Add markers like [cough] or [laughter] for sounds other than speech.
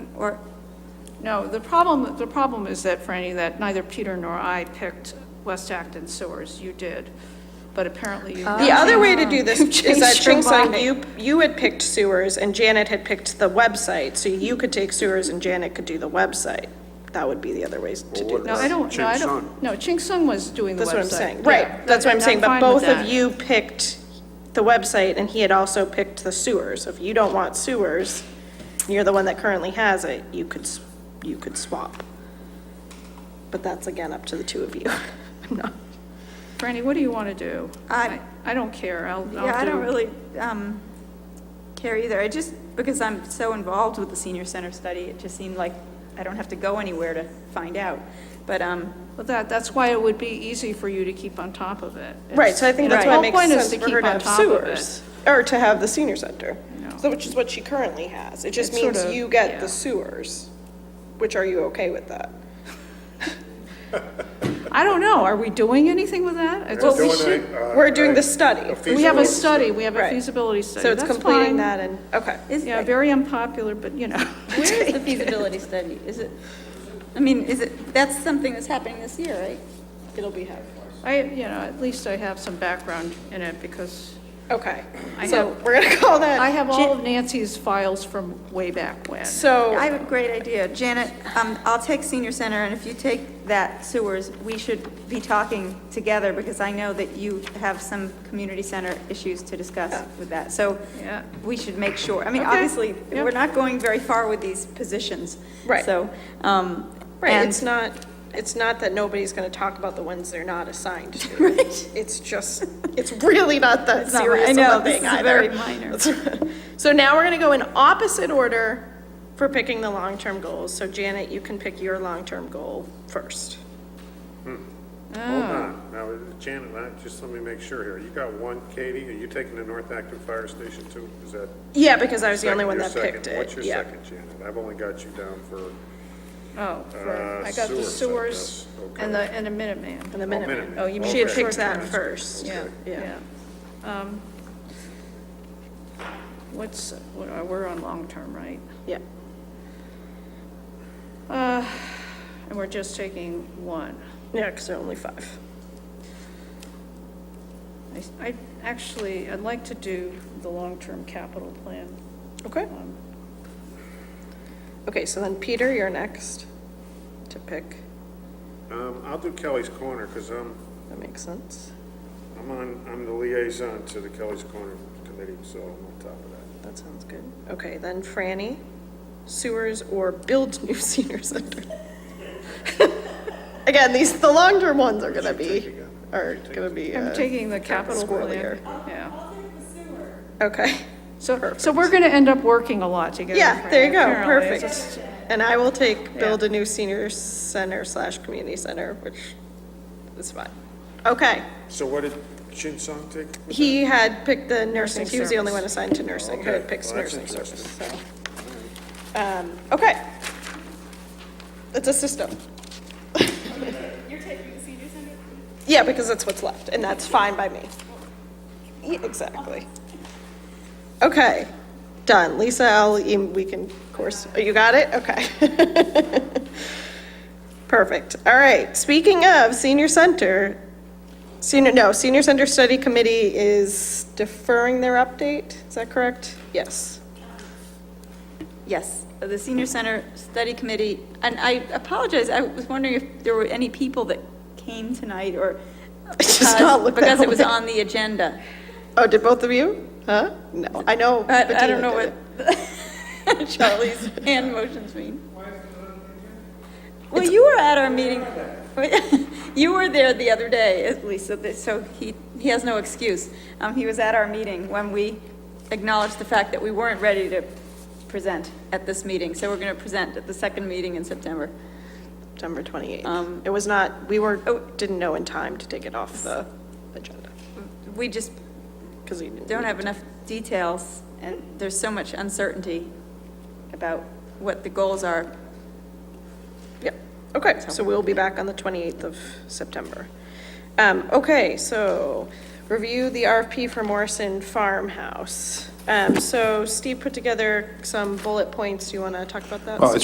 Or, No, the problem, the problem is that, Franny, that neither Peter nor I picked West Acton sewers. You did, but apparently you. Oh. The other way to [laughs] do this is that Changed your Trinksong, mind. you, you had picked sewers and Janet had picked the website, so you could take sewers and Janet could do the website. That would be the other ways to do No, this. I don't, no, I don't, no, Ching Sung was doing the website. That's what I'm saying, Yeah. right, that's what I'm No, saying, but fine with both of that. you picked the website and he had also picked the sewers. If you don't want sewers, and you're the one that currently has it, you could, s- you could swap. But that's again up to the two of you. [laughs] I'm not, Franny, what do you want to do? I- I don't care, I'll, I'll do. yeah, I don't really um, care either. I just, because I'm so involved with the senior center study, it just seemed like I don't have to go anywhere to find out. But, um, [laughs] Well, that, that's why it would be easy for you to keep on top of it. It's- Right, so I think that's the why it whole makes point is sense to for her keep to on have top of it. sewers, or to have the senior center, No. so which is what she currently has. It just It's sort means of- you get yeah. the sewers, which are you okay with that? I don't know, are we doing anything with that? I just- we doing should- a- we're doing a- the study. Uh, a We have feasibility a study, we have a Right. feasibility study, So it's that's completing fine. that and, okay. is, Yeah, very unpopular, but you know. [laughs] where is the feasibility study? Is it, I mean, is it, that's something that's happening this year, right? It'll be happening. I, you know, at least I have some background in it because Okay, I so have- we're gonna call I that, have all of Nancy's files from way back when. I so, have a great idea. Janet, um, I'll take senior center, and if you take that sewers, we should be talking together, because I know that you have some community center issues to discuss with that. So Yeah. we should make sure, I mean, Okay. obviously, Yeah. we're not going very far with these positions. Right. So, um, right, and- it's not, it's not that nobody's gonna talk about the ones they're not assigned to. [laughs] Right. It's just, it's really not that not- serious I of know, a this thing is either. very minor. [laughs] So now we're gonna go in opposite order for picking the long-term goals. So Janet, you can pick your long-term goal first. Oh. Hold on, now, uh, Janet, I- just let me make sure here, you got one, Katie, are you taking the North Acton Fire Station too? Is that? Yeah, because I was the only second- one your that picked second? What's it, your yeah. second, Janet? I've only got you down for, Oh, for- Uh, I got the sewers, sewers I guess. and the, Okay. and the Minuteman. And the Oh, minute, Minuteman. Oh, you mean she had the picked that short-term. first. Yeah, yeah. Um, What's, what are, we're on long-term, right? Yeah, Uh, And we're just taking one. yeah, because there are only five. I s- I, actually, I'd like to do the long-term capital plan. Okay. Um, Okay, so then Peter, you're next to pick. um, I'll do Kelly's Corner, because I'm, That makes sense. I'm on, I'm the liaison to the Kelly's Corner Committee, so I'm on top of that. That sounds good. Okay, then Franny, sewers or build new [laughs] senior center? Again, these, the long-term ones are gonna be, are gonna be. I'm uh, taking the capital plan, squirrelier. yeah. Okay, So, so we're going to end up working a lot together. [laughs] yeah, there you go, apparently. It's perfect. just- And I will take build a new senior center slash community center, which is fine. Okay, So what did Chin Sung take? he had picked the nursing, he was the only service. one assigned to nursing, who Okay, had picked well, that's nursing service, interesting. so. Um, okay. It's a system. You're taking the senior center? Yeah, because that's what's left, and that's fine by me. Yeah, Exactly. Okay, done. Lisa, I'll, em- we can, of course, oh, you got it? Okay. [laughs] Perfect. All right, speaking of senior center, senior, no, senior center study committee is deferring their update, is that correct? Yes. Yes, the Senior Center Study Committee, and I apologize, I was wondering if there were any people that came tonight or. does because- not look that Because it was way. on the agenda. Oh, did both of you? Huh? No, I know. I, I Bettina don't know did it. what [laughs] Charlie's hand motions mean. Well, you were at our meeting, [laughs] you were there the other day, at least, so that- so he, he has no excuse. Um, he was at our meeting when we acknowledged the fact that we weren't ready to present at this meeting, so we're gonna present at the second meeting in September. September 28th. It was not, we were, Um, oh. didn't know in time to take it off the agenda, We just because we didn't. don't have enough details, and there's so much uncertainty about what the goals are Yep, okay, so we'll be back on the 28th of September. Um, Okay, so, review the RFP for Morrison Farmhouse. Um, So Steve put together some bullet points, do you want to talk about that? Well, it's